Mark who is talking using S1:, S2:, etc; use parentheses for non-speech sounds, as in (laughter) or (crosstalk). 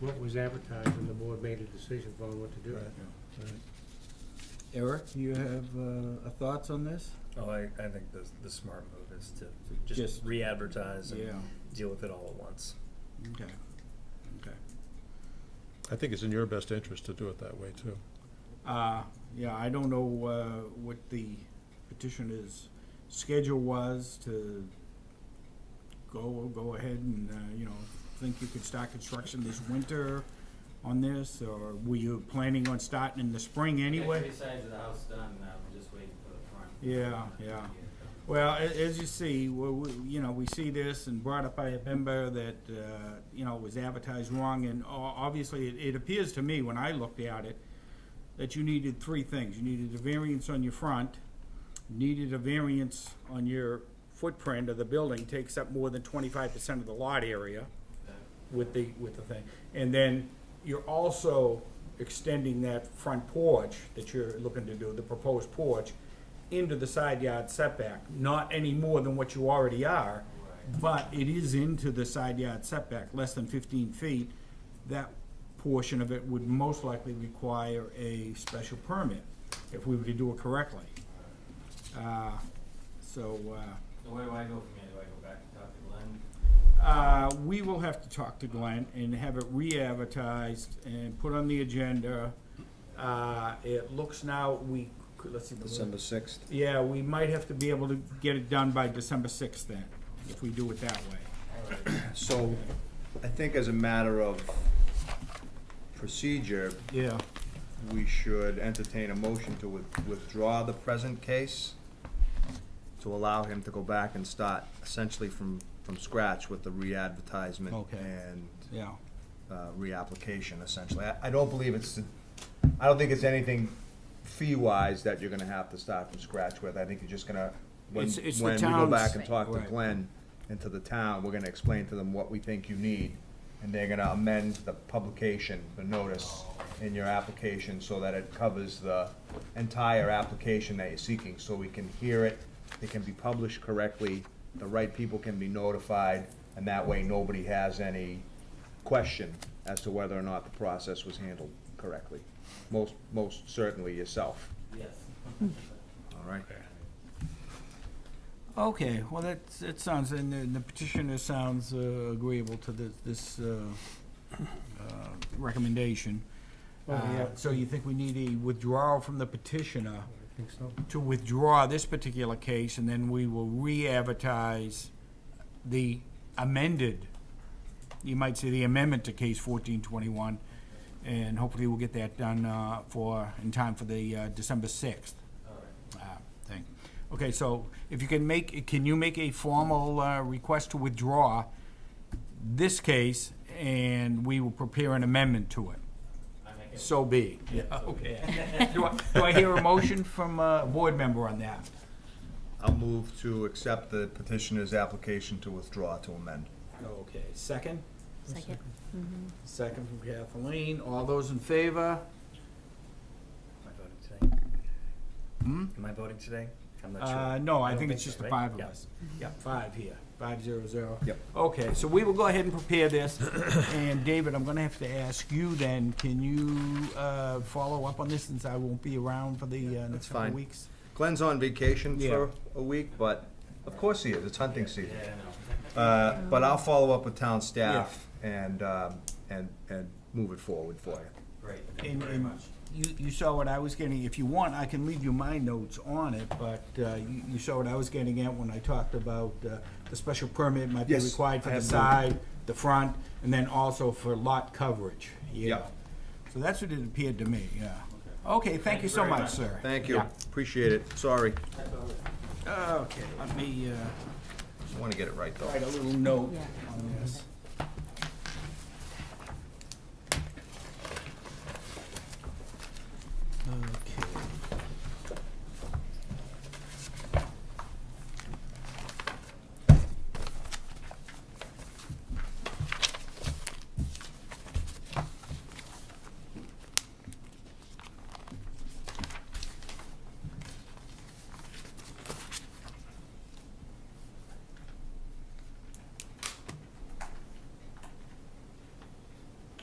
S1: what was advertised and the board made a decision on what to do.
S2: Right. Eric, you have uh, a thoughts on this?
S3: Oh, I, I think the, the smart move is to
S2: Just-
S3: just re-advertise and
S2: Yeah,
S3: deal with it all at once.
S2: okay, okay.
S4: I think it's in your best interest to do it that way, too.
S2: Uh, yeah, I don't know, uh, what the petitioner's schedule was to go, go ahead and, uh, you know, think you could start construction this winter on this, or were you planning on starting in the spring anyway?
S5: Three sides of the house done, and I'm just waiting for the front.
S2: Yeah, yeah. Well, a- as you see, well, we, you know, we see this and brought up by a member that, uh, you know, was advertised wrong, and o- obviously, it, it appears to me, when I looked at it, that you needed three things. You needed a variance on your front, needed a variance on your footprint of the building, takes up more than twenty-five percent of the lot area
S5: Uh,
S2: with the, with the thing. And then you're also extending that front porch that you're looking to do, the proposed porch, into the side yard setback, not any more than what you already are, but it is into the side yard setback, less than fifteen feet. That portion of it would most likely require a special permit, if we were to do it correctly. Uh, So, uh,
S5: So where do I go from here? Do I go back and talk to Glenn?
S2: uh, we will have to talk to Glenn and have it re-advertised and put on the agenda. Uh, it looks now, we, could- let's see. December sixth. Yeah, we might have to be able to get it done by December sixth then, if we do it that way.
S6: So, I think as a matter of procedure,
S2: Yeah.
S6: we should entertain a motion to with- withdraw the present case to allow him to go back and start essentially from, from scratch with the re-advertisement
S2: Okay.
S6: and
S2: Yeah,
S6: uh, reapplication essentially. I, I don't believe it's, I don't think it's anything fee-wise that you're gonna have to start from scratch with. I think you're just gonna, when,
S2: It's- it's the
S6: when we go
S2: town's-
S6: back and talk to
S2: Right.
S6: Glenn and to the town, we're gonna explain to them what we think you need. And they're gonna amend the publication, the notice in your application so that it covers the entire application that you're seeking. So we can hear it, it can be published correctly, the right people can be notified, and that way nobody has any question as to whether or not the process was handled correctly. Most, most certainly yourself,
S5: Yes.
S6: all right?
S2: okay, well, that, it sounds, and the- the petitioner sounds uh, agreeable to this, this, uh, uh, recommendation.
S1: Well, yeah,
S2: Uh, So you think we need a withdrawal from the petitioner?
S1: I think so.
S2: to withdraw this particular case, and then we will re-advertise the amended, you might say the amendment to case fourteen twenty-one, and hopefully we'll get that done, uh, for, in time for the, uh, December sixth,
S5: All right.
S2: uh, thing. Okay, so if you can make, can you make a formal, uh, request to withdraw this case, and we will prepare an amendment to it?
S5: I make it.
S2: So be. Yeah, (laughs) okay. Do I, do I hear a motion from a board member on that?
S6: I'll move to accept the petitioner's application to withdraw to amend.
S2: Okay, second?
S7: Second.
S2: Second from Kathleen. All those in favor?
S3: Am I voting today?
S2: Hmm?
S3: Am I voting today? I'm not sure.
S2: Uh, no, I
S3: don't
S2: think it's just
S3: so,
S2: the
S3: right?
S2: five of
S3: Yeah.
S2: us. Yeah, five here, five zero zero.
S6: Yep.
S2: Okay, so we will go ahead and prepare
S3: (coughs)
S2: this, and David, I'm gonna have to ask you then, can you, uh, follow up on this since I won't be around for the, uh, next
S6: that's
S2: couple
S6: fine.
S2: weeks?
S6: Glenn's on vacation
S2: Yeah.
S6: for a week, but of course he is, it's hunting season.
S5: Yeah, no.
S6: Uh, But I'll follow up with town staff and, um, and, and move it forward for you.
S5: (laughs) Great.
S2: And, and you, you saw what I was getting, if you want, I can leave you my notes on it, but, uh, you, you saw what I was getting at when I talked about, uh, the special permit might be
S6: Yes,
S2: required for
S6: I
S2: the
S6: have
S2: side, the front, and then also for lot coverage, yeah.
S6: Yep.
S2: So that's what it appeared to me, yeah. Okay, thank you so
S5: very
S2: much,
S5: much.
S2: sir.
S6: Thank you,
S2: Yeah.
S6: appreciate it, sorry.
S5: That's all.
S2: Okay, let me, uh,
S6: Just wanna get it right though.
S2: write a little note
S7: Yeah.
S2: on this.